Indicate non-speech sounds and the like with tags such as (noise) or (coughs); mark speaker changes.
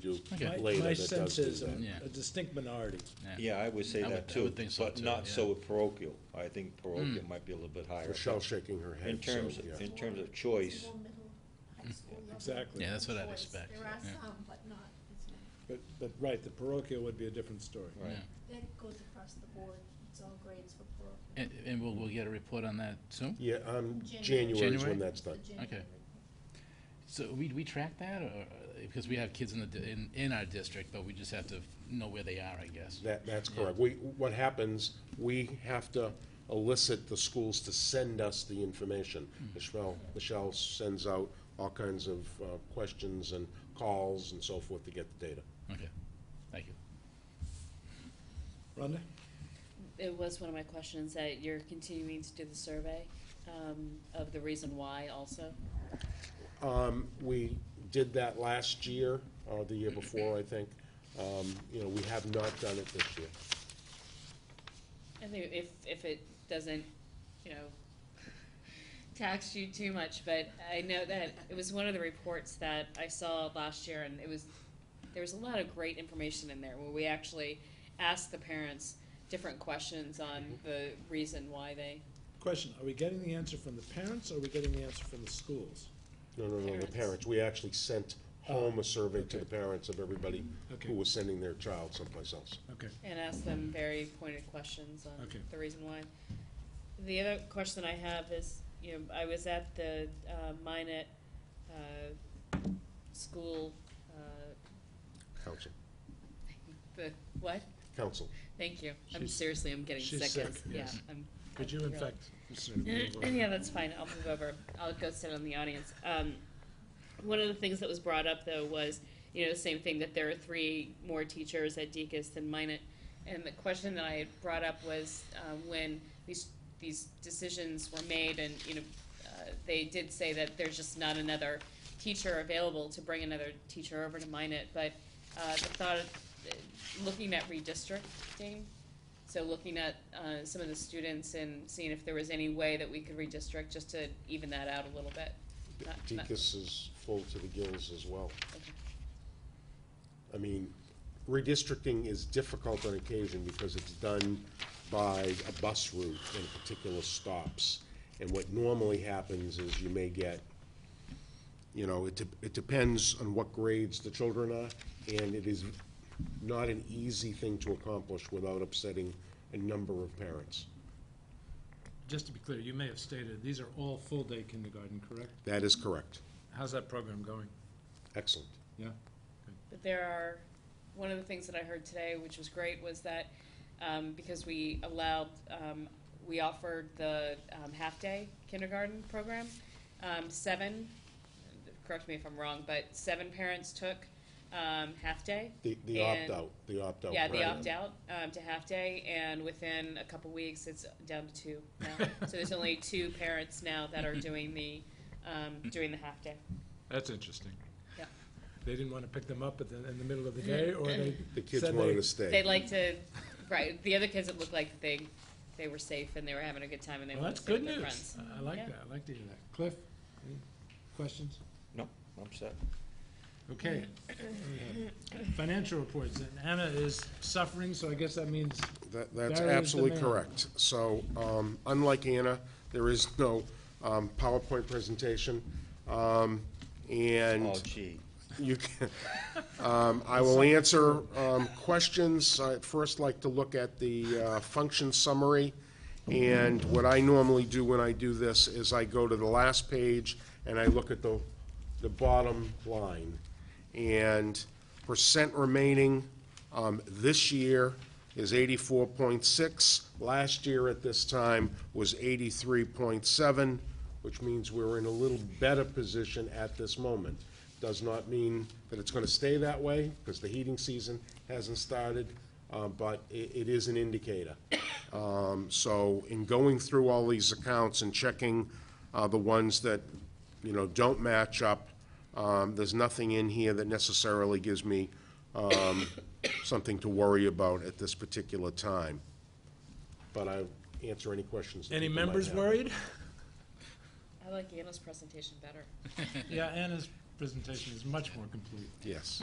Speaker 1: do
Speaker 2: Okay.
Speaker 1: later
Speaker 3: My
Speaker 1: that does
Speaker 3: sense
Speaker 1: do
Speaker 3: is um,
Speaker 1: that.
Speaker 3: a
Speaker 2: Yeah.
Speaker 3: a distinct minority.
Speaker 4: Yeah, I would say
Speaker 2: I would-
Speaker 4: that
Speaker 2: I
Speaker 4: too,
Speaker 2: would think so
Speaker 4: but
Speaker 2: too,
Speaker 4: not
Speaker 2: yeah. Hmm.
Speaker 4: so parochial. I think parochial might be a little bit higher.
Speaker 1: Michelle shaking her head,
Speaker 4: In
Speaker 1: so,
Speaker 4: terms,
Speaker 1: yeah.
Speaker 4: in terms of choice,
Speaker 5: Middle, high school level
Speaker 3: Exactly.
Speaker 2: Yeah, that's what I'd
Speaker 5: choice.
Speaker 2: expect,
Speaker 5: There are
Speaker 2: yeah.
Speaker 5: some, but not as many.
Speaker 3: But, but, right, the parochial would be a different story.
Speaker 4: right,
Speaker 5: That goes across the board, it's all grades for parochial.
Speaker 2: And, and we'll, we'll get a report on that soon?
Speaker 1: Yeah, um,
Speaker 5: January.
Speaker 1: January is
Speaker 2: January?
Speaker 1: when that's done.
Speaker 5: The January
Speaker 2: Okay.
Speaker 5: report.
Speaker 2: So we, we track that, or, uh, because we have kids in the, di- in, in our district, but we just have to know where they are, I guess.
Speaker 1: That, that's correct. We, what happens, we have to elicit the schools to send us the information.
Speaker 4: Hmm.
Speaker 1: Michelle, Michelle sends out all kinds of uh, questions and calls and so forth to get the data.
Speaker 2: Okay, thank you.
Speaker 3: Rhonda?
Speaker 6: It was one of my questions that you're continuing to do the survey um, of the reason why also.
Speaker 1: Um, we did that last year, or the year before, I think. Um, you know, we have not done it this year.
Speaker 6: I think if, if it doesn't, you know, (laughs) tax you too much, but I know that it was one of the reports that I saw last year and it was, there was a lot of great information in there where we actually asked the parents different questions on the reason why they,
Speaker 3: Question, are we getting the answer from the parents or are we getting the answer from the schools?
Speaker 1: No, no, no, the
Speaker 6: Parents.
Speaker 1: parents. We actually sent home a survey to the parents of everybody
Speaker 3: Okay.
Speaker 1: who was sending their child someplace else.
Speaker 3: Okay,
Speaker 6: and asked them very pointed questions on
Speaker 3: Okay.
Speaker 6: the reason why. The other question I have is, you know, I was at the uh, Minnet uh, school, uh, (laughs)
Speaker 1: Council,
Speaker 6: the what?
Speaker 1: council.
Speaker 6: Thank you. I'm
Speaker 3: She's-
Speaker 6: seriously, I'm getting
Speaker 3: she's
Speaker 6: sick.
Speaker 3: sick,
Speaker 6: It's- Yeah,
Speaker 3: yes.
Speaker 6: I'm.
Speaker 3: could you
Speaker 6: I'm
Speaker 3: in
Speaker 6: really-
Speaker 3: fact? sort
Speaker 6: (laughs)
Speaker 3: of move on?
Speaker 6: yeah, that's fine. I'll move over. I'll go sit on the audience. Um, one of the things that was brought up though was, you know, the same thing that there are three more teachers at Deacon's than Minot. And the question that I had brought up was um, when these these decisions were made, and you know, uh, they did say that there's just not another teacher available to bring another teacher over to Minot. But uh, the thought of uh, looking at redistricting so looking at uh, some of the students and seeing if there was any way that we could redistrict just to even that out a little bit. Not- not-
Speaker 1: Deacon's is full to the gills as well.
Speaker 6: okay.
Speaker 1: I mean, redistricting is difficult on occasion because it's done by a bus route and particular stops. And what normally happens is you may get, you know, it, de- it depends on what grades the children are, and it is not an easy thing to accomplish without upsetting a number of parents.
Speaker 7: Just to be clear, you may have stated, these are all full-day kindergarten, correct?
Speaker 1: That is correct.
Speaker 7: How's that program going?
Speaker 1: Excellent.
Speaker 7: Yeah?
Speaker 6: But there are, one of the things that I heard today, which was great, was that um, because we allowed, um, we offered the um, half-day kindergarten program, um, seven, correct me if I'm wrong, but seven parents took um, half-day.
Speaker 1: The, the
Speaker 6: And-
Speaker 1: opt-out, the opt-out.
Speaker 6: Yeah, they
Speaker 1: program.
Speaker 6: opt out um, to half day, and within a couple weeks, it's down to two now. so there's only two parents now that are doing the um, doing the half day.
Speaker 7: That's interesting.
Speaker 6: Yeah.
Speaker 7: They didn't want to pick them up at the, in the middle of (laughs) the day, or they
Speaker 1: The kids
Speaker 7: said
Speaker 1: wanted
Speaker 7: they-
Speaker 1: to stay.
Speaker 6: They like to, right? The other kids, it looked like they they were safe and they were having a good time, and they
Speaker 7: Well,
Speaker 6: wanted
Speaker 7: that's
Speaker 6: to stay with
Speaker 7: good
Speaker 6: their
Speaker 7: news.
Speaker 6: friends.
Speaker 7: I like
Speaker 6: Yeah.
Speaker 7: that, I like to hear that. Cliff, any questions?
Speaker 4: no, I'm set.
Speaker 7: Okay. We have Financial reports, and Anna is suffering, so I guess that means,
Speaker 1: That, that's
Speaker 7: There is
Speaker 1: absolutely
Speaker 7: demand.
Speaker 1: correct. So, um, unlike Anna, there is no, um, PowerPoint presentation. Um, and
Speaker 4: Oh, gee.
Speaker 1: you can, um, I will answer, um, questions. I'd first like to look at the, uh, function summary. And what I normally do when I do this is I go to the last page and I look at the, the bottom line. And percent remaining, um, this year is eighty-four point six. Last year at this time was eighty-three point seven, which means we're in a little better position at this moment. Does not mean that it's gonna stay that way, because the heating season hasn't started, uh, but i- it is an indicator. Um, so in going through all these accounts and checking, uh, the ones that, you know, don't match up, um, there's nothing in here that necessarily gives me, um, (coughs) something to worry about at this particular time. But I'll answer any questions. that
Speaker 7: any
Speaker 1: people might
Speaker 7: members
Speaker 1: have.
Speaker 7: worried?
Speaker 6: I like Anna's presentation better.
Speaker 7: Yeah, Anna's presentation is much more complete.
Speaker 1: Yes.